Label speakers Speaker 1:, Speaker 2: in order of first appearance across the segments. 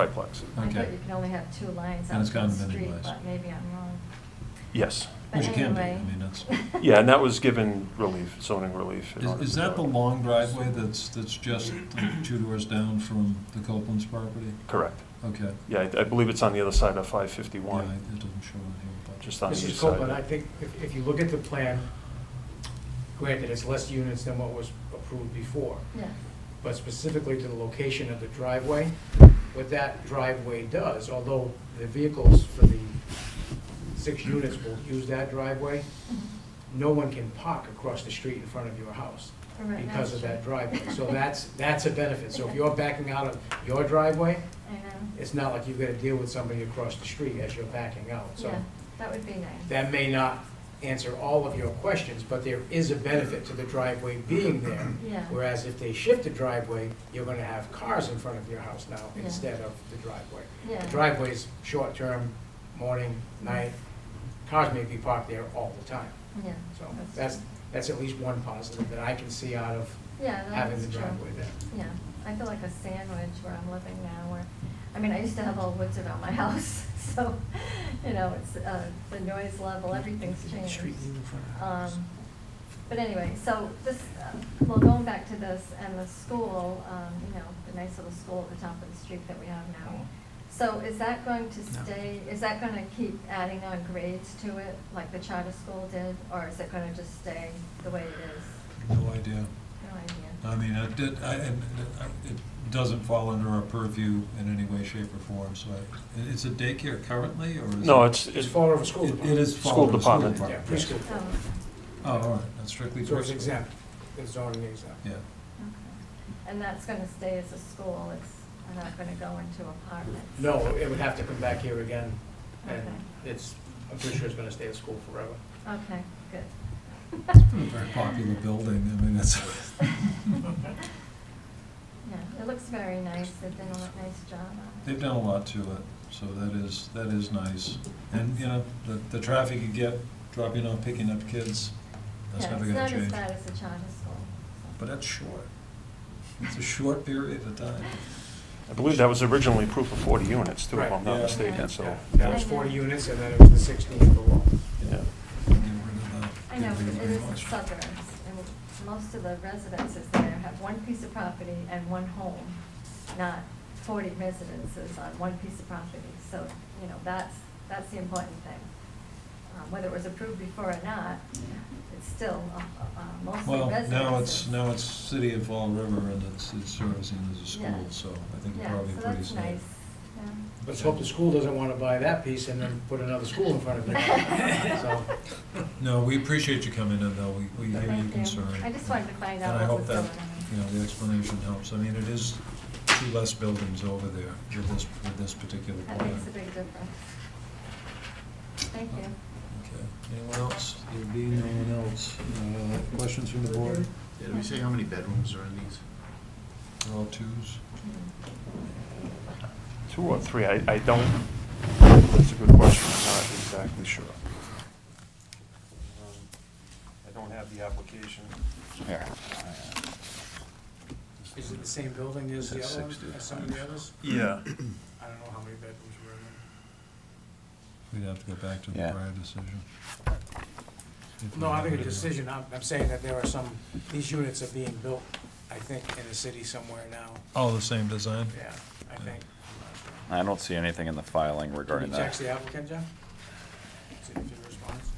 Speaker 1: triplex.
Speaker 2: I thought
Speaker 3: Okay.
Speaker 2: you could only have two lines
Speaker 3: And
Speaker 2: on
Speaker 3: it's
Speaker 2: the
Speaker 3: gotten many
Speaker 2: street,
Speaker 3: ways.
Speaker 2: but maybe I'm wrong.
Speaker 1: Yes.
Speaker 2: But
Speaker 3: Which it can be, I
Speaker 2: anyway.
Speaker 3: mean, that's-
Speaker 1: Yeah, and that was given relief, zoning relief. in
Speaker 3: Is,
Speaker 1: order
Speaker 3: is
Speaker 1: to
Speaker 3: that the
Speaker 1: do it.
Speaker 3: long driveway that's, that's just two doors down from the Copeland's property?
Speaker 1: Correct.
Speaker 3: Okay.
Speaker 1: Yeah, I- I believe it's on the other side of
Speaker 3: Yeah, it
Speaker 1: 551,
Speaker 3: it doesn't show on here, but.
Speaker 1: just on the east
Speaker 4: Mrs. Copeland, I
Speaker 1: side.
Speaker 4: think if, if you look at the plan, granted, it's less units than what was approved before,
Speaker 2: Yeah,
Speaker 4: but specifically to the location of the driveway, what that driveway does, although the vehicles for the six units will use that driveway,
Speaker 2: mhm.
Speaker 4: no one can park across the street in front of your house
Speaker 2: All right, that's
Speaker 4: because of that
Speaker 2: true.
Speaker 4: driveway. So that's, that's a benefit. So if you're backing out of your driveway,
Speaker 2: I know,
Speaker 4: it's not like you've got to deal with somebody across the street as you're backing out. So
Speaker 2: yeah, that would be nice.
Speaker 4: that may not answer all of your questions, but there is a benefit to the driveway being there.
Speaker 2: Yeah,
Speaker 4: Whereas if they shift the driveway, you're gonna have cars in front of your house now
Speaker 2: Yeah.
Speaker 4: instead of the driveway. The
Speaker 2: yeah,
Speaker 4: driveway's short-term, morning, night, cars may be parked there all the time.
Speaker 2: yeah.
Speaker 4: So
Speaker 2: That's
Speaker 4: that's,
Speaker 2: true.
Speaker 4: that's at least one positive that I can see out of
Speaker 2: Yeah,
Speaker 4: having
Speaker 2: that's
Speaker 4: the
Speaker 2: true.
Speaker 4: driveway there.
Speaker 2: Yeah, I feel like a sandwich where I'm living now, where, I mean, I used to have all woods around my house, so, you know, it's, uh, the noise level, everything's changed. Um, But anyway, so this, uh, well, going back to this and the school, um, you know, the nice little school at the top of the street that we have now. So is that going to stay, is that going to keep adding on grades to it, like the charter school did? Or is it going to just stay the way it is?
Speaker 3: No idea.
Speaker 2: No idea.
Speaker 3: I mean, it did, I, it, it doesn't fall under our purview in any way, shape, or form, so I, it's a daycare currently, or is it?
Speaker 1: No, it's,
Speaker 4: It's
Speaker 1: it's,
Speaker 4: far over school
Speaker 3: It it
Speaker 4: department.
Speaker 3: is.
Speaker 1: School
Speaker 3: followed the
Speaker 1: department.
Speaker 4: Yeah, preschool.
Speaker 2: Oh, okay.
Speaker 3: Oh, all right, that's strictly.
Speaker 4: So it's
Speaker 3: preschool.
Speaker 4: exempt, it's zoning exempt.
Speaker 3: Yeah,
Speaker 2: Okay. And that's going to stay as a school, it's not going to go into apartments?
Speaker 4: No, it would have to come back here again, and
Speaker 2: Okay.
Speaker 4: it's, I'm pretty sure it's gonna stay at school forever.
Speaker 2: Okay, good.
Speaker 3: it's
Speaker 4: Hmm.
Speaker 3: been a very popular building, I mean, it's,
Speaker 2: Yeah, it looks very nice, they've done a lot- nice job on it.
Speaker 3: they've done a lot to it, so that is, that is nice. And, you know, the, the traffic you get dropping off, picking up kids, that's
Speaker 2: Yeah,
Speaker 3: never gonna change.
Speaker 2: It's not as bad as the charter school.
Speaker 3: But that's short. It's a short period of time.
Speaker 1: I believe that was originally proof of 40 units, too, if I'm not
Speaker 3: Right.
Speaker 1: mistaken,
Speaker 2: Yeah.
Speaker 1: so.
Speaker 4: Yeah, it was forty units, and then it was the sixteen for law.
Speaker 1: Yeah.
Speaker 3: Get rid of the-
Speaker 2: I know,
Speaker 3: get rid of
Speaker 2: it is
Speaker 3: the-
Speaker 2: suburbs, and most of the residences there have one piece of property and one home, not forty residences on one piece of property. So, you know, that's, that's the important thing. Uh, Whether it was approved before or not, it's still uh, uh, mostly
Speaker 3: Well,
Speaker 2: residences.
Speaker 3: now it's, now it's City of Fall River and it's, it's servicing as a school,
Speaker 2: Yeah.
Speaker 3: so I think it's
Speaker 2: Yeah,
Speaker 3: probably
Speaker 2: so
Speaker 3: pretty
Speaker 2: that's
Speaker 3: safe.
Speaker 2: nice, yeah.
Speaker 4: Let's hope the school doesn't want to buy that piece and then put another school in front of it. So,
Speaker 3: No, we appreciate you coming in though, we, we hear your
Speaker 2: Thank you.
Speaker 3: concern.
Speaker 2: I just wanted to find
Speaker 3: And I
Speaker 2: out what
Speaker 3: hope
Speaker 2: was
Speaker 3: that,
Speaker 2: going on.
Speaker 3: you know, the explanation helps. I mean, it is two less buildings over there with this, with this particular
Speaker 2: That
Speaker 3: plan.
Speaker 2: makes a big difference. Thank you.
Speaker 3: Okay, anyone else? There'd be no one else. Uh, Questions from the board?
Speaker 5: Did we say how many bedrooms are in these?
Speaker 3: They're all twos.
Speaker 2: Mm-hmm.
Speaker 1: Two or three, I, I don't, that's a good question, I'm not exactly sure. Um, I don't have the application.
Speaker 5: Here.
Speaker 4: is it the same building as the
Speaker 5: Says
Speaker 4: other, one,
Speaker 5: 60.
Speaker 4: as some of the others?
Speaker 1: Yeah.
Speaker 4: I don't know how many bedrooms were in
Speaker 3: We'd have to go back to the
Speaker 5: Yeah.
Speaker 3: prior decision. If
Speaker 4: there.
Speaker 3: we
Speaker 4: No, I
Speaker 3: have
Speaker 4: think a
Speaker 3: it.
Speaker 4: decision, I'm, I'm saying that there are some, these units are being built, I think, in the city somewhere now.
Speaker 3: All the same design?
Speaker 4: Yeah, I think.
Speaker 5: I don't see anything in the filing
Speaker 4: Can
Speaker 5: regarding
Speaker 4: you text
Speaker 5: that.
Speaker 4: the applicant, Jeff? See if he responds.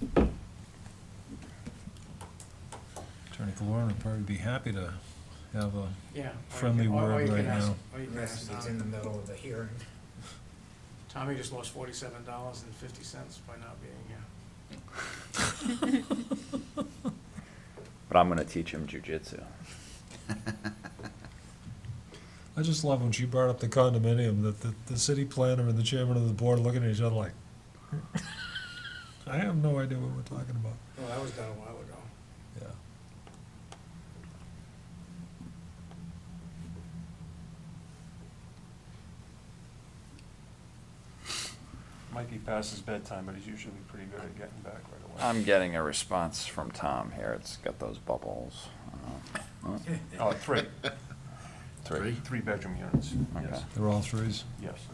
Speaker 3: Attorney Galloran would probably be happy to have a,
Speaker 4: Yeah. or you
Speaker 3: Friendly
Speaker 4: can- or- or
Speaker 3: word
Speaker 4: you can
Speaker 3: right
Speaker 4: ask-
Speaker 3: now.
Speaker 4: or you can ask
Speaker 6: Yes, it's in the
Speaker 4: Tom.
Speaker 6: middle of the hearing.
Speaker 4: Tommy just lost forty-seven dollars and fifty cents by not being here.
Speaker 5: But I'm gonna teach him jujitsu.
Speaker 3: I just love when she brought up the condominium, that the, the city planner and the chairman of the board looking at each other like, I have no idea what we're talking about.
Speaker 4: Well, that was done a while ago.
Speaker 3: Yeah.
Speaker 1: Might be past his bedtime, but he's usually pretty good at getting back right away.
Speaker 5: I'm getting a response from Tom here. It's got those bubbles. Uh, oh.
Speaker 1: Oh, three.
Speaker 7: Three.
Speaker 3: Three-bedroom units,
Speaker 7: Okay.
Speaker 3: yes,
Speaker 1: They're all threes?
Speaker 3: yes.